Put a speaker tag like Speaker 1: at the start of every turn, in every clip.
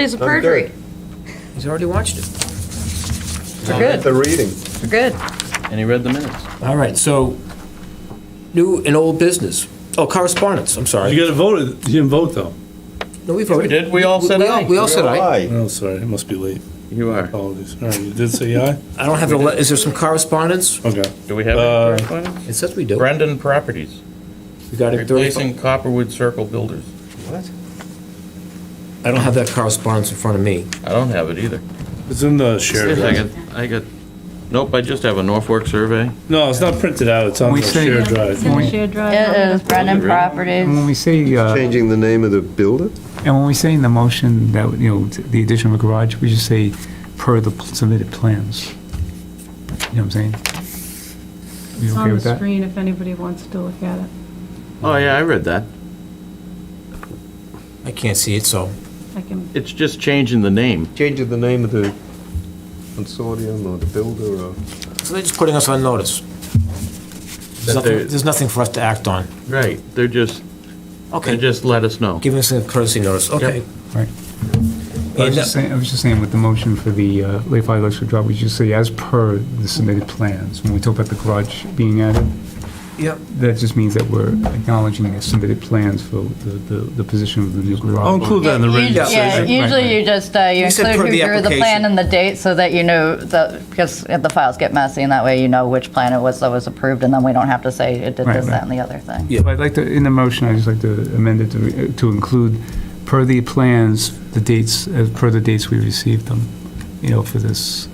Speaker 1: It is a perjury.
Speaker 2: He's already watched it.
Speaker 1: We're good,
Speaker 3: The reading.
Speaker 1: we're good.
Speaker 4: And he read the minutes.
Speaker 2: All right, so new and old business. Oh, correspondence, I'm
Speaker 5: You
Speaker 2: sorry.
Speaker 5: gotta vote it. You didn't vote though.
Speaker 2: No, we voted.
Speaker 4: did. We all said aye.
Speaker 2: We all said aye.
Speaker 5: Oh, sorry. It must be late.
Speaker 4: You are.
Speaker 5: Apologies. All right. You did say aye?
Speaker 2: I don't have, a le- is there some correspondence?
Speaker 5: Okay.
Speaker 4: Do we have
Speaker 5: Uh,
Speaker 4: any correspondence?
Speaker 2: It says we do.
Speaker 4: Brendan Properties,
Speaker 2: We got it. thirty-
Speaker 4: replacing Copperwood Circle Builders.
Speaker 3: What?
Speaker 2: I don't have that correspondence in front of me.
Speaker 4: I don't have it either.
Speaker 5: It's in the
Speaker 4: I
Speaker 5: shared. drive.
Speaker 4: got, I got, nope, I just have a Norfolk survey.
Speaker 5: No, it's not printed out. It's on the
Speaker 6: We say-
Speaker 5: shared drive.
Speaker 6: When we-
Speaker 7: Shared drive.
Speaker 1: It is Brennan
Speaker 6: When
Speaker 1: Properties.
Speaker 6: we say, uh,
Speaker 3: Changing the name of the builder?
Speaker 6: and when we say in the motion that, you know, the addition of a garage, we just say per the submitted plans. You know what I'm saying? You
Speaker 7: It's
Speaker 6: okay
Speaker 7: on the
Speaker 6: with that?
Speaker 7: screen if anybody wants to look at it.
Speaker 4: Oh, yeah, I read that.
Speaker 2: I can't see it, so.
Speaker 7: I can,
Speaker 4: It's just changing the name.
Speaker 3: Changing the name of the consortium or the builder or?
Speaker 2: So they're just putting us on notice. There's
Speaker 4: That
Speaker 2: nothing,
Speaker 4: they're-
Speaker 2: there's nothing for us to act on.
Speaker 4: Right. They're just, they
Speaker 2: Okay,
Speaker 4: just let us know.
Speaker 2: giving us a courtesy notice, okay.
Speaker 6: Right. I was
Speaker 2: And, uh,
Speaker 6: just saying, I was just saying with the motion for the uh, Lake Valley Electric Drive, we just say as per the submitted plans. When we talk about the garage being added,
Speaker 2: Yep.
Speaker 6: that just means that we're acknowledging the submitted plans for the, the, the position of the new garage.
Speaker 5: I'll include that in the written
Speaker 2: Yeah.
Speaker 1: Yeah,
Speaker 5: decision.
Speaker 1: usually you just, uh, you
Speaker 2: You said
Speaker 1: include
Speaker 2: per the
Speaker 1: who drew the
Speaker 2: application.
Speaker 1: plan and the date so that you know, that because the files get messy and that way you know which plan it was that was approved and then we don't have to say it did
Speaker 6: Right,
Speaker 1: this,
Speaker 6: right.
Speaker 1: that, and the other thing.
Speaker 2: Yeah.
Speaker 6: But I'd like to, in the motion, I'd just like to amend it to, uh, to include, per the plans, the dates, as per the dates we received them, you know, for this,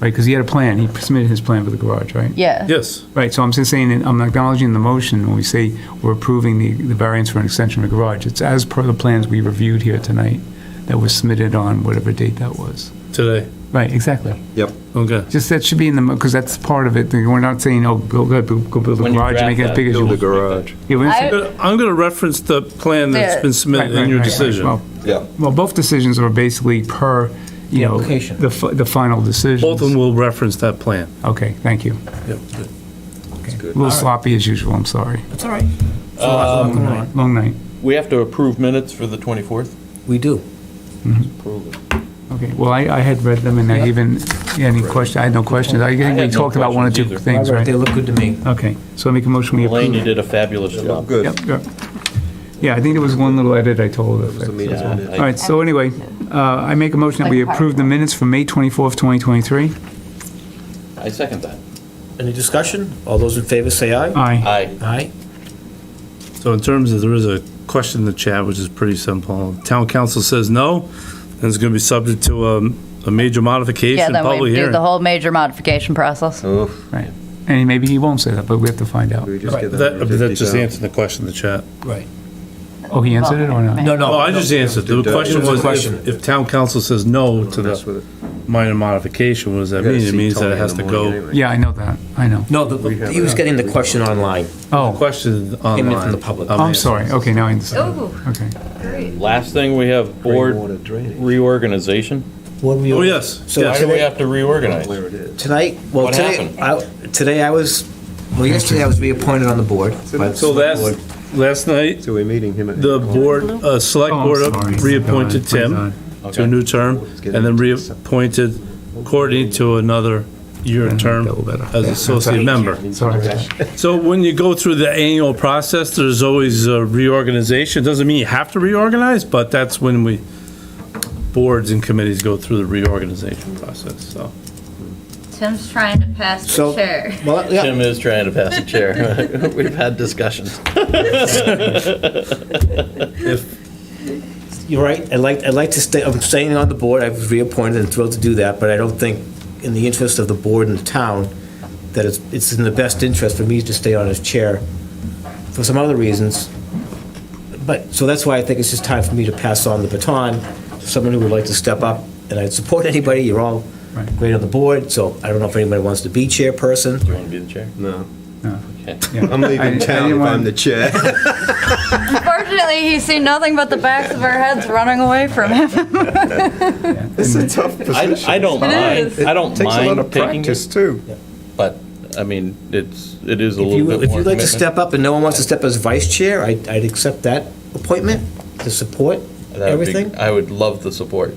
Speaker 6: right, because he had a plan, he submitted his plan for the garage, right?
Speaker 1: Yeah,
Speaker 5: Yes.
Speaker 6: Right, so I'm just saying, that I'm acknowledging the motion, when we say we're approving the, the variance for an extension of the garage, it's as per the plans we reviewed here tonight, that was submitted on whatever date that was.
Speaker 5: Today.
Speaker 6: Right, exactly.
Speaker 5: Okay.
Speaker 6: Just, that should be in the, because that's part of it, we're not saying, oh, go, go go build a
Speaker 4: When you
Speaker 6: garage, and
Speaker 4: draft
Speaker 6: make it
Speaker 4: that,
Speaker 6: as big as you
Speaker 3: Build
Speaker 6: want.
Speaker 3: a garage.
Speaker 6: Yeah, we're not saying-
Speaker 1: I-
Speaker 5: But I'm gonna reference the plan that's been submitted
Speaker 6: Right,
Speaker 5: in your
Speaker 6: right, right.
Speaker 5: decision.
Speaker 6: Well,
Speaker 3: Yeah.
Speaker 6: Well, both decisions are basically per, you know,
Speaker 2: application.
Speaker 6: the, fi- the final decision.
Speaker 5: Both of them will reference that plan.
Speaker 6: Okay, thank you.
Speaker 5: Yep.
Speaker 6: A little sloppy as usual, I'm sorry.
Speaker 2: That's all right.
Speaker 6: Long
Speaker 2: Um,
Speaker 6: Uh, night. Long night.
Speaker 4: We have to approve minutes for the 24th?
Speaker 2: We do.
Speaker 6: Okay, well, I, I had read them and I even, yeah, any question, I had no questions. I
Speaker 4: had
Speaker 6: think we
Speaker 4: no
Speaker 6: talked about one or two
Speaker 4: questions either.
Speaker 6: things,
Speaker 2: They
Speaker 6: right?
Speaker 2: look good to me.
Speaker 6: Okay, so I make a motion, we
Speaker 4: Elaine, you
Speaker 6: approve.
Speaker 4: did a fabulous job.
Speaker 3: Good.
Speaker 6: Yep, yep. Yeah, I think there was one little edit I told. All
Speaker 4: Yeah, I-
Speaker 6: right, so anyway, uh, I make a motion that we approve the minutes for May 24th, 2023.
Speaker 4: I second that.
Speaker 2: Any discussion? All those in favor say aye.
Speaker 6: Aye.
Speaker 4: Aye.
Speaker 2: Aye.
Speaker 5: So in terms of, there is a question in the chat, which is pretty simple. Town council says no, and it's gonna be subject to um, a major
Speaker 1: yeah,
Speaker 5: modification,
Speaker 1: then
Speaker 5: public
Speaker 1: we do
Speaker 5: hearing.
Speaker 1: the whole major modification process.
Speaker 6: Right. And maybe he won't say that, but we have to find out.
Speaker 3: We just get
Speaker 5: That, but that just
Speaker 3: 150,000.
Speaker 5: answered the question in the chat.
Speaker 2: Right.
Speaker 6: Oh, he answered it or not?
Speaker 2: No, no.
Speaker 5: Oh, I just answered. The
Speaker 3: It
Speaker 5: question
Speaker 2: was a
Speaker 5: was,
Speaker 2: question.
Speaker 5: if- if town council says no to
Speaker 3: Mess
Speaker 5: the
Speaker 3: with it.
Speaker 5: minor modification, what does that
Speaker 3: You gotta
Speaker 5: mean? It
Speaker 3: see
Speaker 5: means that
Speaker 3: Tony
Speaker 5: it
Speaker 3: in
Speaker 5: has
Speaker 3: the
Speaker 5: to
Speaker 3: morning
Speaker 5: go,
Speaker 3: anyway.
Speaker 6: Yeah, I know that, I know.
Speaker 2: No, the- he was getting the question online.
Speaker 6: Oh,
Speaker 5: question
Speaker 2: from
Speaker 5: online. Um,
Speaker 2: the public.
Speaker 5: on
Speaker 3: Oh,
Speaker 6: I'm
Speaker 5: the-
Speaker 6: sorry, okay, now I understand. Okay.
Speaker 4: Last thing, we have
Speaker 3: Rainwater
Speaker 4: board
Speaker 3: drainage.
Speaker 4: reorganization.
Speaker 2: What were you?
Speaker 5: Oh, yes,
Speaker 2: So
Speaker 5: yes.
Speaker 4: Why do we have to reorganize?
Speaker 3: Where it is.
Speaker 2: Tonight, well,
Speaker 4: What
Speaker 2: today, I, today I was, well, yesterday I was reappointed on the board. by the
Speaker 5: So
Speaker 2: select board.
Speaker 5: last, last night,
Speaker 3: So we're meeting him at.
Speaker 5: the board, uh, select
Speaker 6: Oh, I'm
Speaker 5: board
Speaker 6: sorry.
Speaker 5: reappointed
Speaker 6: Sorry,
Speaker 5: Tim
Speaker 6: sorry.
Speaker 5: to a new term, and then reappointed Courtney to another year term
Speaker 6: Double better.
Speaker 5: as associate member.
Speaker 6: Sorry.
Speaker 5: So when you go through the annual process, there's always a reorganization. Doesn't mean you have to reorganize, but that's when we, boards and committees go through the reorganization process, so.
Speaker 8: Tim's trying to pass
Speaker 2: So-
Speaker 8: the chair.
Speaker 2: Well, yeah,
Speaker 4: Tim is trying to pass a chair. We've had discussions.
Speaker 2: you're right. I'd like, I'd like to stay, I'm staying on the board. I was reappointed and thrilled to do that, but I don't think, in the interest of the board and the town, that it's, it's in the best interest for me to stay on as chair for some other reasons. But, so that's why I think it's just time for me to pass on the baton to someone who would like to step up. And I'd support anybody. You're all
Speaker 6: Right.
Speaker 2: great on the board, so I don't know if anybody wants to be chairperson.
Speaker 4: You want to be the chair?
Speaker 3: No.
Speaker 6: Yeah.
Speaker 3: I'm
Speaker 6: I- I
Speaker 3: leaving town
Speaker 6: didn't
Speaker 3: if I'm
Speaker 6: want-
Speaker 3: the chair.
Speaker 1: Unfortunately, he's seen nothing but the backs of our heads running away from him.
Speaker 3: It's a tough
Speaker 4: I,
Speaker 3: position.
Speaker 4: I don't mind, I don't
Speaker 3: Takes a lot
Speaker 4: mind
Speaker 3: of
Speaker 4: taking
Speaker 3: practice
Speaker 4: it,
Speaker 3: too.
Speaker 4: but, I mean, it's, it is a
Speaker 2: If you,
Speaker 4: little bit
Speaker 2: if
Speaker 4: more
Speaker 2: you'd like to
Speaker 4: commitment.
Speaker 2: step up and no one wants to step as vice chair, I'd, I'd accept that appointment to support.
Speaker 4: That would be-
Speaker 2: Everything?
Speaker 4: I would love the support.